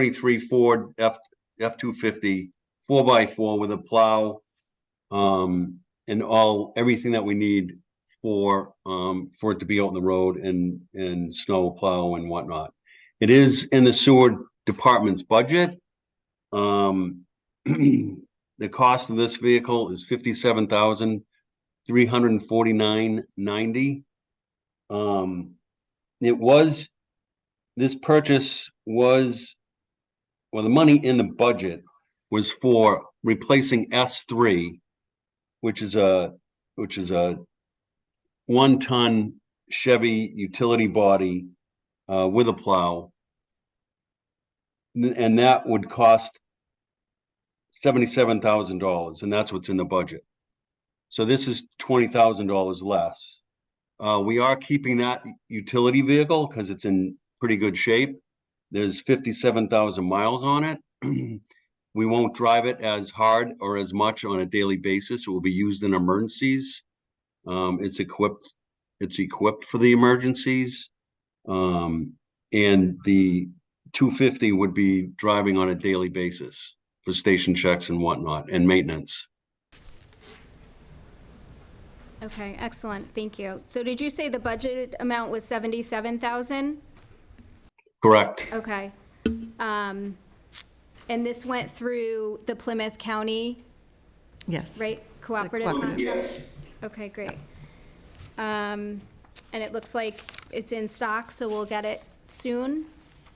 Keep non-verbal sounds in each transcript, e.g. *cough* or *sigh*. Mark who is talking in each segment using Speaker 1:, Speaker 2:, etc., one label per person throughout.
Speaker 1: twenty-three Ford F, F two fifty, four by four with a plow. Um, and all, everything that we need for, um, for it to be out on the road and, and snow plow and whatnot. It is in the sewer department's budget. Um, *clears throat* the cost of this vehicle is fifty-seven thousand, three hundred and forty-nine ninety. Um, it was, this purchase was, well, the money in the budget was for replacing S three, which is a, which is a one-ton Chevy utility body, uh, with a plow. N- And that would cost seventy-seven thousand dollars, and that's what's in the budget. So this is twenty thousand dollars less. Uh, we are keeping that utility vehicle because it's in pretty good shape. There's fifty-seven thousand miles on it. *clears throat* We won't drive it as hard or as much on a daily basis. It will be used in emergencies. Um, it's equipped, it's equipped for the emergencies. Um, and the two fifty would be driving on a daily basis for station checks and whatnot and maintenance.
Speaker 2: Okay, excellent, thank you. So did you say the budgeted amount was 77,000?
Speaker 1: Correct.
Speaker 2: Okay. Um, And this went through the Plymouth County,
Speaker 3: Yes.
Speaker 2: right, cooperative
Speaker 3: cooperative.
Speaker 2: contract? Okay, great. Um, And it looks like it's in stock, so we'll get it soon?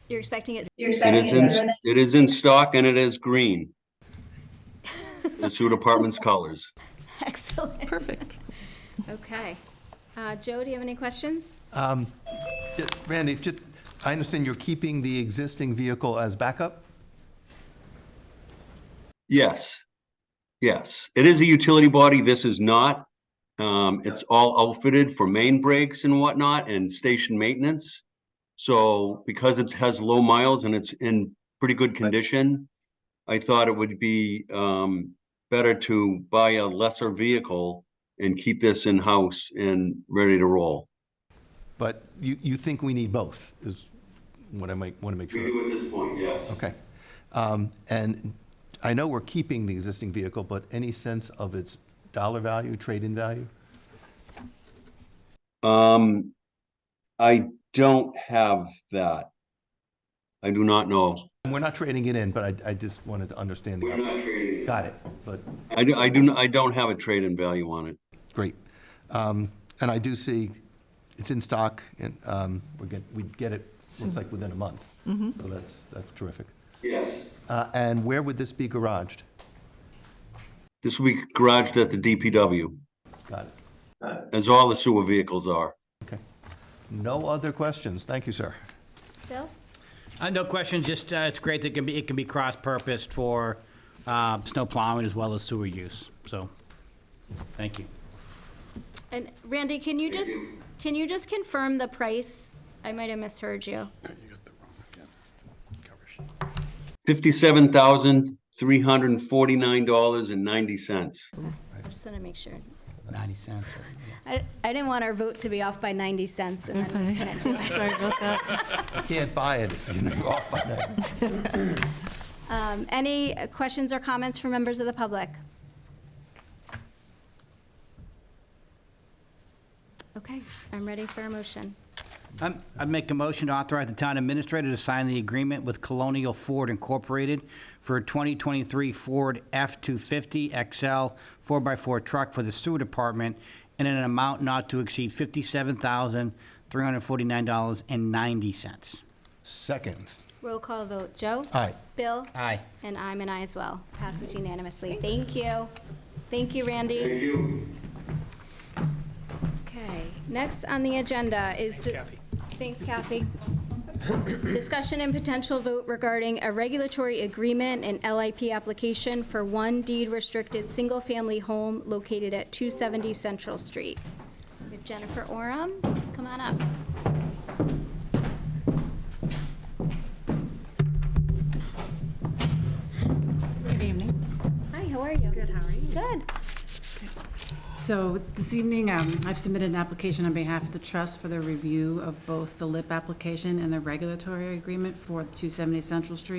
Speaker 2: You're expecting it?
Speaker 4: You're
Speaker 1: It
Speaker 4: expecting
Speaker 1: is
Speaker 4: it
Speaker 1: in,
Speaker 4: sooner
Speaker 1: it is in stock and it is
Speaker 4: *laughs*
Speaker 1: green. The sewer department's colors.
Speaker 2: *laughs* Excellent,
Speaker 3: Perfect.
Speaker 2: okay. Uh, Joe, do you have any questions?
Speaker 5: Yeah, Randy, if Um, just, I understand you're keeping the existing vehicle as backup?
Speaker 1: Yes. Yes, it is a utility body. This is not. Um, it's all outfitted for main brakes and whatnot and station maintenance. So because it has low miles and it's in pretty good condition, I thought it would be, um, better to buy a lesser vehicle and keep this in-house and ready to roll.
Speaker 5: But you, you think we need both, is what I might want to make sure.
Speaker 1: at this point, yes.
Speaker 5: Okay. Um, And I know we're keeping the existing vehicle, but any sense of its dollar value, trade-in value?
Speaker 1: Um, I don't have that. I do not know.
Speaker 5: And we're not trading it in, but I, I just wanted to understand the,
Speaker 1: not trading.
Speaker 5: got it, but
Speaker 1: I do, I do, I don't have a trade-in value on it.
Speaker 5: Great. Um, And I do see it's in stock, and um, we get, we get it, looks like within a month. So that's, that's terrific.
Speaker 1: Yes.
Speaker 5: Uh, And where would this be garaged?
Speaker 1: This will be garaged at the DPW,
Speaker 5: Got it.
Speaker 1: as all the sewer vehicles are.
Speaker 5: Okay. No other questions. Thank you, sir.
Speaker 2: Bill?
Speaker 6: Uh, No questions, just, uh, it's great that it can be, it can be cross-purposed for uh, snow plowing as well as sewer use, so, thank you.
Speaker 2: And Randy, can you just, can you just confirm the price? I might have misheard you.
Speaker 1: Fifty-seven thousand, three hundred and forty-nine dollars and ninety cents.
Speaker 2: I just want to make sure.
Speaker 6: 90 cents.
Speaker 2: I, I didn't want our vote to be off by 90 cents and then can't do it.
Speaker 3: Sorry about that.
Speaker 5: You Can't buy it if you're off by that.
Speaker 2: Um, Any uh, questions or comments from members of the public? Okay, I'm ready for a motion.
Speaker 6: I'm- Um, I'd make a motion to authorize the town administrator to sign the agreement with Colonial Ford Incorporated for a 2023 Ford F-250 XL 4x4 truck for the sewer department in an amount not to exceed $57,349.90.
Speaker 5: Second.
Speaker 2: Roll call vote. Joe?
Speaker 5: Aye.
Speaker 2: Bill?
Speaker 6: Aye.
Speaker 2: And I'm an aye as well. Passes unanimously. Thank you. Thank you, Randy. Thank you. Okay, next on the agenda is. Thanks, Kathy. Thanks, Kathy. Discussion and potential vote regarding a regulatory agreement and LIP application for one deed-restricted single-family home located at 270 Central Street. We have Jennifer Oram, come on up.
Speaker 7: Good evening.
Speaker 2: Hi, how are you?
Speaker 7: Good, how are you?
Speaker 2: Good.
Speaker 7: So this evening, um, I've submitted an application on behalf of the trust for the review of both the LIP application and the regulatory agreement for 270 Central Street.